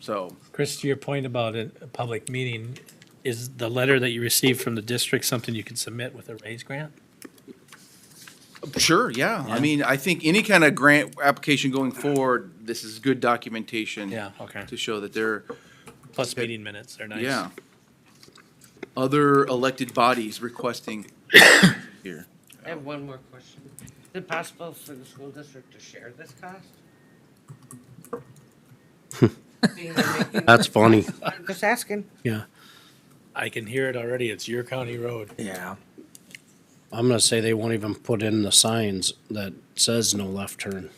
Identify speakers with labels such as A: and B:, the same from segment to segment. A: So,
B: Chris, to your point about a a public meeting, is the letter that you received from the district something you can submit with a raise grant?
A: sure, yeah. I
B: Yeah.
A: mean, I think any kind of grant application going forward, this is good documentation.
B: Yeah, okay.
A: To show that they're,
B: Plus meeting minutes are nice.
A: yeah. Other elected bodies requesting here.
C: I have one more question. Is it possible for the school district to share this cost? Being they're making-
D: That's funny.
C: I'm Just asking.
B: Yeah. I can hear it already. It's your county road.
D: Yeah. I'm gonna say they won't even put in the signs that says no left turn.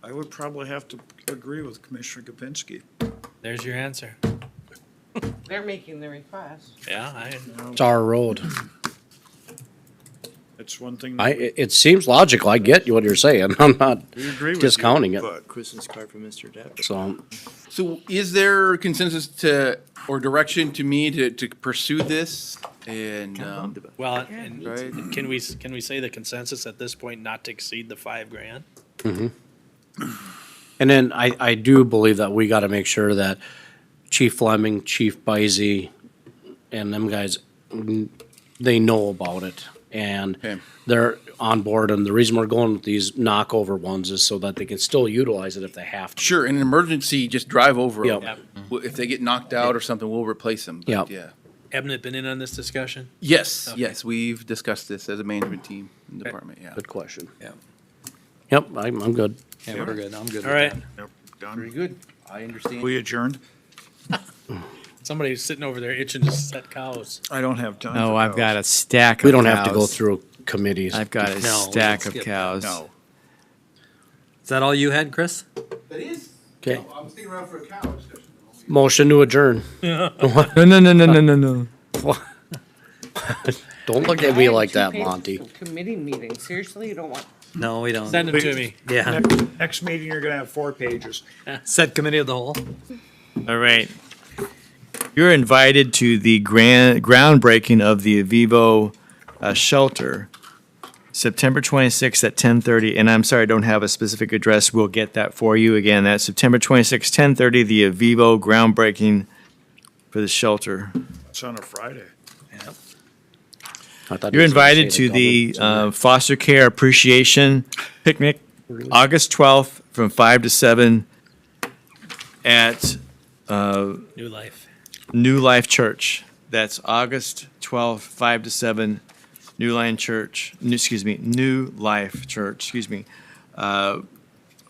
E: I would probably have to agree with Commissioner Kapinski.
B: There's your answer.
C: They're making the request.
B: Yeah, I,
D: It's our road.
E: It's one thing. that
D: I,
E: we-
D: it, it seems logical. I get what you're saying. I'm not
E: We agree with you.
D: discounting it.
E: But
F: Christmas card for Mr. Depp.
D: So
A: So is there consensus to, or direction to me to, to pursue this? And, um,
B: well, and
A: Right.
B: can we, can we say the consensus at this point not to exceed the five grand?
D: And then I, I do believe that we gotta make sure that Chief Fleming, Chief Bizey, and them guys, mm, they know about it. And
A: Okay.
D: they're on board, and the reason we're going with these knockover ones is so that they can still utilize it if they have to.
A: sure, in an emergency, just drive over. 'em.
D: Yep.
A: Well, If they get knocked out or something, we'll replace them. but
D: Yep.
A: Yeah.
B: Haven't it been in on this discussion?
A: Yes,
B: Okay.
A: yes, we've discussed this as a management team and department, yeah.
D: Good question.
F: Yeah.
D: Yep, I'm, I'm good.
F: Yeah, we're good. I'm good.
B: All right.
E: Yep, done.
A: good. I understand.
E: We adjourned?
B: Somebody's sitting over there itching to set cows.
E: I don't have time.
F: Oh,
E: for
F: I've got
E: those.
F: a stack. Of
D: We don't have to go
F: cows.
D: through committees.
F: I've got a
B: No, we
F: stack
B: don't
F: of
B: skip
F: cows.
E: No.
G: Is that all you had, Chris?
A: That is,
D: Okay,
A: I'm sticking around for a cow discussion.
D: motion to adjourn.
F: No, no, no, no, no, no, no.
D: Don't look at
C: I
D: me
C: have
D: like
C: two
D: that,
C: pages
D: Monty.
C: of Committee meeting. Seriously, you don't want,
G: No, we don't.
B: Send them to me.
G: Yeah.
E: Next- Next meeting, you're gonna have four pages.
G: Set committee of the whole.
F: All right. You're invited to the grand groundbreaking of the Avivo uh, shelter, September 26th at 10:30. And I'm sorry, I don't have a specific address. We'll get that for you again. That's September 26th, 10:30. The Avivo groundbreaking for the shelter.
E: It's on a Friday.
D: I thought
F: You're
D: he was gonna
F: invited
D: say
F: to the
D: government-
F: uh, Foster Care Appreciation Picnic, August 12th, from 5 to 7 at
B: New life.
F: New Life Church. That's August 12th, 5 to 7, New Life Church, n- excuse me, New Life Church, excuse me, uh,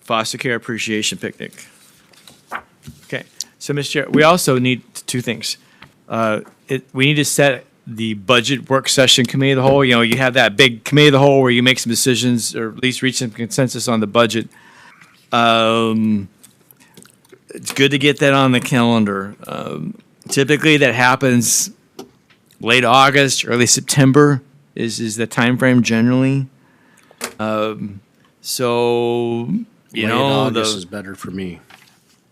F: Foster Care Appreciation Picnic. Okay, so, Mr. Chair, we also need t- two things. Uh, it, we need to set the budget work session committee of the whole, you know, you have that big committee of the whole where you make some decisions or at least reach some consensus on the budget. Um, it's good to get that on the calendar. Um, typically that happens late August, early September is is the time frame generally. Um, so you
D: Late
F: know the
D: August is better for me.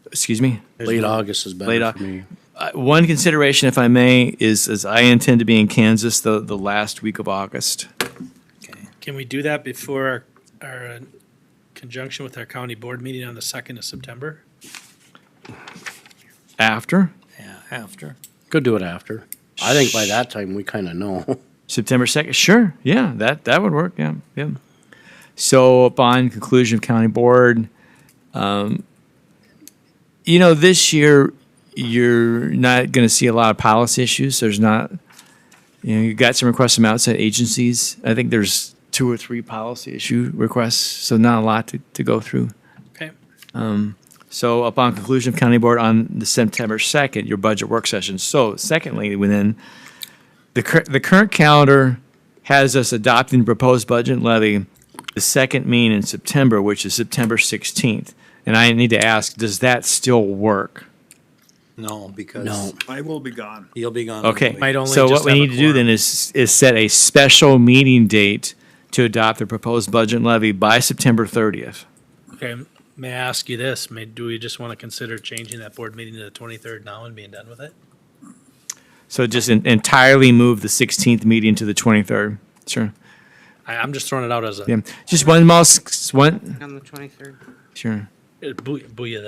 F: excuse me.
D: Late August is better
F: Late
D: for
F: Au-
D: me.
F: Uh, one consideration, if I may, is is I intend to be in Kansas the the last week of August.
B: Can we do that before our, our, uh, conjunction with our county board meeting on the second of September?
F: After
G: Yeah, after.
D: Could do it after. I think by that time we kind of know.
F: September second, sure, yeah, that that would work. Yeah, yeah. So upon conclusion of county board, um, you know, this year you're not going to see a lot of policy issues. There's not, you know, you got some requests from outside agencies. I think there's two or three policy issue requests, so not a lot to, to go through.
B: Okay.
F: So upon conclusion of county board on the September 2nd, your budget work session. So secondly, within, the cur- the current calendar has us adopting proposed budget levy the second mean in September, which is September 16th. And I need to ask, does that still work?
G: No, because
D: No.
E: I will be gone.
G: you'll be gone.
F: Okay.
G: Might only
F: So
G: just
F: what we
G: have a
F: need to do
G: quorum.
F: then is, is set a special meeting date to adopt the proposed budget levy by September 30th.
B: Okay, may I ask you this? May, do we just want to consider changing that board meeting to the twenty-third now and being done with it?
F: So just en- entirely move the 16th meeting to the 23rd. Sure.
B: I, I'm just throwing it out as a
F: Yeah, just one mouse, one,
C: on the twenty-third.
F: sure.
B: a booy- booyah